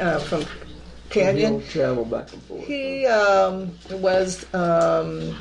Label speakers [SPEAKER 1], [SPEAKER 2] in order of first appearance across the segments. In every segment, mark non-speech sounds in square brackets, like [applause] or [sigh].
[SPEAKER 1] uh, from
[SPEAKER 2] He
[SPEAKER 1] Canyon.
[SPEAKER 2] don't travel back and forth.
[SPEAKER 1] He um, was um,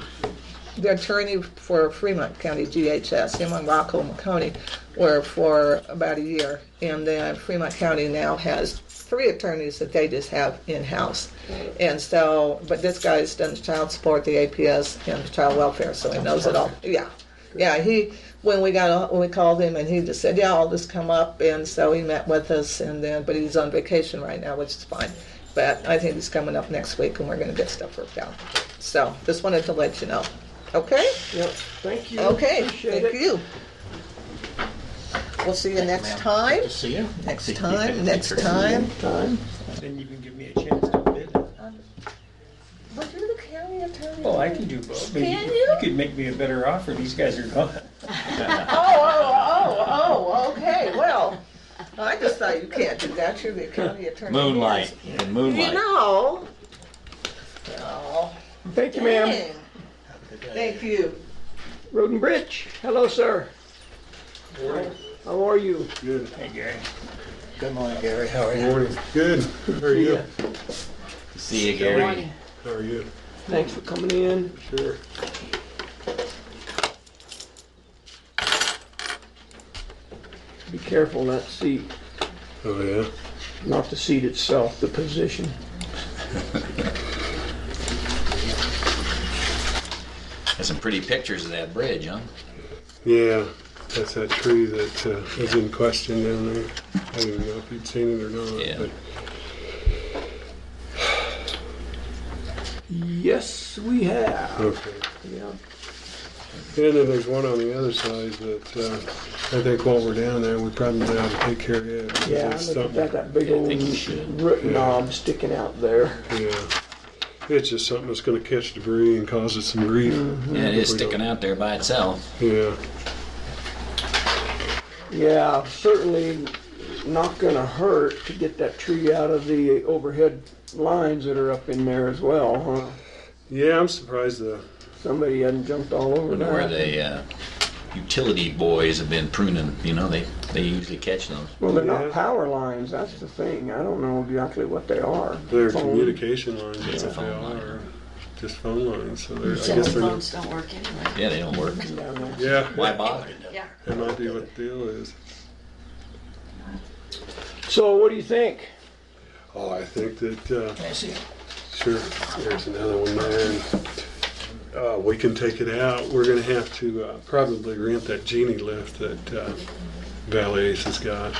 [SPEAKER 1] the attorney for Fremont County DHS. Him and Rockland County were for about a year, and then Fremont County now has three attorneys that they just have in house. And so, but this guy's done the child support, the APS, and the child welfare, so he knows it all. Yeah. Yeah, he when we got on- when we called him and he just said, "Yeah, I'll just come up." And so he met with us, and then but he's on vacation right now, which is fine. But I think he's coming up next week, and we're going to get stuff worked out. So just wanted to let you know. Okay.
[SPEAKER 2] Yep, thank you.
[SPEAKER 1] Okay.
[SPEAKER 2] Appreciate
[SPEAKER 1] Thank
[SPEAKER 2] it.
[SPEAKER 1] you. We'll see you next time.
[SPEAKER 3] Good to see you. [laughs]
[SPEAKER 1] Next time. Next time.
[SPEAKER 2] Time.
[SPEAKER 4] Then you can give me a chance to bid.
[SPEAKER 1] But you're the county attorney.
[SPEAKER 4] Well, Oh, I can do both. Maybe
[SPEAKER 1] Can you?
[SPEAKER 4] could make me a better offer. These guys are gone.
[SPEAKER 1] Oh, oh, oh, oh. Okay. Well, I just thought you can't do that. You're the county attorney.
[SPEAKER 3] Moonlight and
[SPEAKER 1] You
[SPEAKER 3] moonlight.
[SPEAKER 1] know. Oh,
[SPEAKER 2] Thank you, ma'am.
[SPEAKER 1] dang. Thank you.
[SPEAKER 2] Roden Bridge, hello, sir. How are you?
[SPEAKER 5] Good.
[SPEAKER 4] Hey, Gary.
[SPEAKER 3] Good morning, Gary. How are you?
[SPEAKER 5] Morning. Good. How are you?
[SPEAKER 3] See you, Gary.
[SPEAKER 5] How are you?
[SPEAKER 2] Thanks for coming in.
[SPEAKER 5] Sure.
[SPEAKER 2] Be careful not to see,
[SPEAKER 5] Oh, yeah.
[SPEAKER 2] not the seat itself, the position.
[SPEAKER 3] There's some pretty pictures of that bridge, huh?
[SPEAKER 5] Yeah. That's that tree that uh, was in question down there. I don't even know if you'd seen it or not.
[SPEAKER 3] Yeah.
[SPEAKER 5] But
[SPEAKER 2] Yes, we have.
[SPEAKER 5] okay.
[SPEAKER 2] Yeah.
[SPEAKER 5] And then there's one on the other side that uh, I think while we're down there, we probably ought to take care of it. because
[SPEAKER 2] Yeah, I
[SPEAKER 5] it's
[SPEAKER 2] looked at that, that
[SPEAKER 5] something-
[SPEAKER 2] big
[SPEAKER 3] Yeah, I
[SPEAKER 2] old
[SPEAKER 3] think you should.
[SPEAKER 2] root knob sticking out there.
[SPEAKER 5] Yeah. It's just something that's going to catch debris and cause us some grief.
[SPEAKER 3] Yeah, it is sticking out there by itself.
[SPEAKER 5] Yeah.
[SPEAKER 2] Yeah, certainly not gonna hurt to get that tree out of the overhead lines that are up in there as well, huh?
[SPEAKER 5] Yeah, I'm surprised the
[SPEAKER 2] Somebody hadn't jumped all over that.
[SPEAKER 3] Where the uh, utility boys have been pruning, you know, they, they usually catch them.
[SPEAKER 2] Well, they're
[SPEAKER 5] Yeah.
[SPEAKER 2] not power lines, that's the thing. I don't know exactly what they are.
[SPEAKER 5] Their
[SPEAKER 2] Phone.
[SPEAKER 5] communication lines,
[SPEAKER 3] It's
[SPEAKER 5] that's
[SPEAKER 3] a
[SPEAKER 5] what they
[SPEAKER 3] phone line.
[SPEAKER 5] are, just phone lines, so they're, I
[SPEAKER 6] Cell
[SPEAKER 5] guess they're, not-
[SPEAKER 6] phones don't work anyway.
[SPEAKER 3] Yeah, they don't work.
[SPEAKER 2] Yeah,
[SPEAKER 5] yeah,
[SPEAKER 3] Why bother?
[SPEAKER 6] Yeah.
[SPEAKER 5] that might be what the deal is.
[SPEAKER 2] So what do you think?
[SPEAKER 5] Oh, I think that, uh,
[SPEAKER 3] I see.
[SPEAKER 5] sure, there's another one there, and, uh, we can take it out, we're gonna have to, uh, probably rent that genie lift that, uh, Valley Ace has got.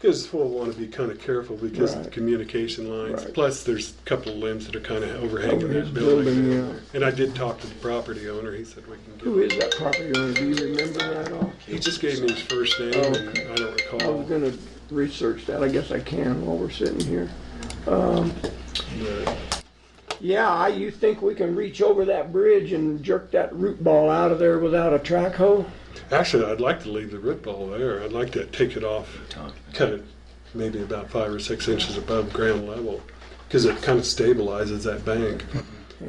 [SPEAKER 5] Cause we'll wanna be kinda careful because of the
[SPEAKER 2] Right.
[SPEAKER 5] communication lines,
[SPEAKER 2] Right.
[SPEAKER 5] plus there's a couple of limbs that are kinda overhanging
[SPEAKER 2] Overhead
[SPEAKER 5] that building.
[SPEAKER 2] building,
[SPEAKER 5] down
[SPEAKER 2] yeah.
[SPEAKER 5] there. And I did talk to the property owner, he said we can get.
[SPEAKER 2] Who is that property owner? Do you remember that off?
[SPEAKER 5] He just gave me his first name,
[SPEAKER 2] Oh,
[SPEAKER 5] and I don't
[SPEAKER 2] I
[SPEAKER 5] recall.
[SPEAKER 2] was gonna research that. I guess I can while we're sitting here. Um,
[SPEAKER 5] but-
[SPEAKER 2] Yeah, I- you think we can reach over that bridge and jerk that root ball out of there without a track hoe?
[SPEAKER 5] Actually, I'd like to leave the root ball there. I'd like to take it off, cut it maybe about five or six inches above ground level, because it kind of stabilizes that bank.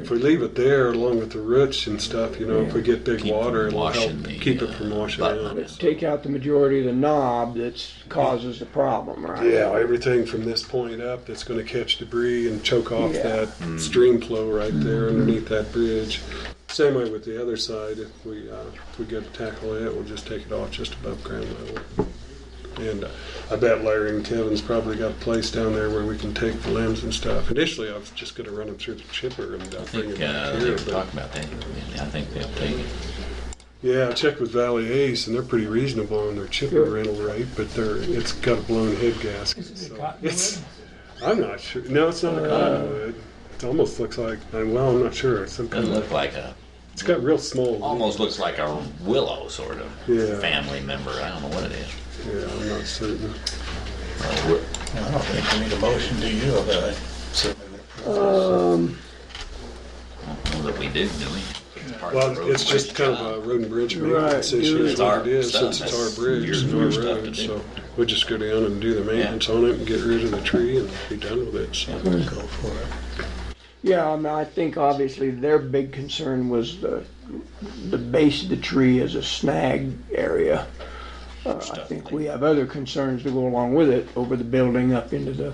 [SPEAKER 5] If we leave it there along with the roots and stuff, you know, if we get big
[SPEAKER 3] Keep
[SPEAKER 5] water,
[SPEAKER 3] from
[SPEAKER 5] it'll
[SPEAKER 3] washing
[SPEAKER 5] help
[SPEAKER 3] the,
[SPEAKER 5] keep it
[SPEAKER 3] uh,
[SPEAKER 5] from washing
[SPEAKER 3] button.
[SPEAKER 5] out.
[SPEAKER 2] Let's take out the majority of the knob that's causes the problem, right?
[SPEAKER 5] Yeah, everything from this point up that's going to catch debris and choke off
[SPEAKER 2] Yeah. Mm-hmm.
[SPEAKER 5] that
[SPEAKER 3] Hmm.
[SPEAKER 5] stream flow right there underneath that bridge. Same way with the other side. If we uh, if we go to tackle it, we'll just take it off just above ground level. And uh, I bet Larry and Kevin's probably got a place down there where we can take the limbs and stuff. Initially, I was just going to run them through the chipper and uh,
[SPEAKER 3] I
[SPEAKER 5] bring
[SPEAKER 3] think
[SPEAKER 5] it
[SPEAKER 3] uh,
[SPEAKER 5] back
[SPEAKER 3] they
[SPEAKER 5] here.
[SPEAKER 3] were
[SPEAKER 5] But,
[SPEAKER 3] talking about that. Yeah, I think they'll take it.
[SPEAKER 5] yeah, I checked with Valley Ace, and they're pretty reasonable on their chipper
[SPEAKER 2] Good.
[SPEAKER 5] rental rate, but they're it's got a blown head gasket. so it's- I'm not sure. No, it's not a
[SPEAKER 3] Uh,
[SPEAKER 5] cottonwood. It almost looks like. uh, Well, I'm not sure. It's some kind
[SPEAKER 3] Doesn't
[SPEAKER 5] of.
[SPEAKER 3] look like a,
[SPEAKER 5] It's got real small.
[SPEAKER 3] almost looks like a willow sort of
[SPEAKER 5] Yeah.
[SPEAKER 3] family member. I don't know what it is.
[SPEAKER 5] Yeah, I'm not certain.
[SPEAKER 7] I don't think we need a motion, do you, of that? Certainly would approve.
[SPEAKER 2] Um,
[SPEAKER 3] I don't know that we do, do we? It's part of the
[SPEAKER 5] Well,
[SPEAKER 3] road
[SPEAKER 5] it's just
[SPEAKER 3] bridge
[SPEAKER 5] kind
[SPEAKER 3] job.
[SPEAKER 5] of a road and bridge
[SPEAKER 2] Right,
[SPEAKER 5] maintenance issue.
[SPEAKER 2] it's
[SPEAKER 5] Is what
[SPEAKER 3] our
[SPEAKER 5] it is
[SPEAKER 3] stuff.
[SPEAKER 5] since it's our
[SPEAKER 3] That's
[SPEAKER 5] bridge,
[SPEAKER 3] your-
[SPEAKER 5] it's
[SPEAKER 3] your
[SPEAKER 5] our
[SPEAKER 3] stuff to do.
[SPEAKER 5] road. So we just go down and do the maintenance on it and get rid of the tree and be done with it. So
[SPEAKER 7] Go for it.
[SPEAKER 2] yeah, I mean, I think obviously their big concern was the, the base of the tree as a snag area. Uh, I
[SPEAKER 3] Stuff
[SPEAKER 2] think
[SPEAKER 3] they-
[SPEAKER 2] we have other concerns to go along with it over the building up into the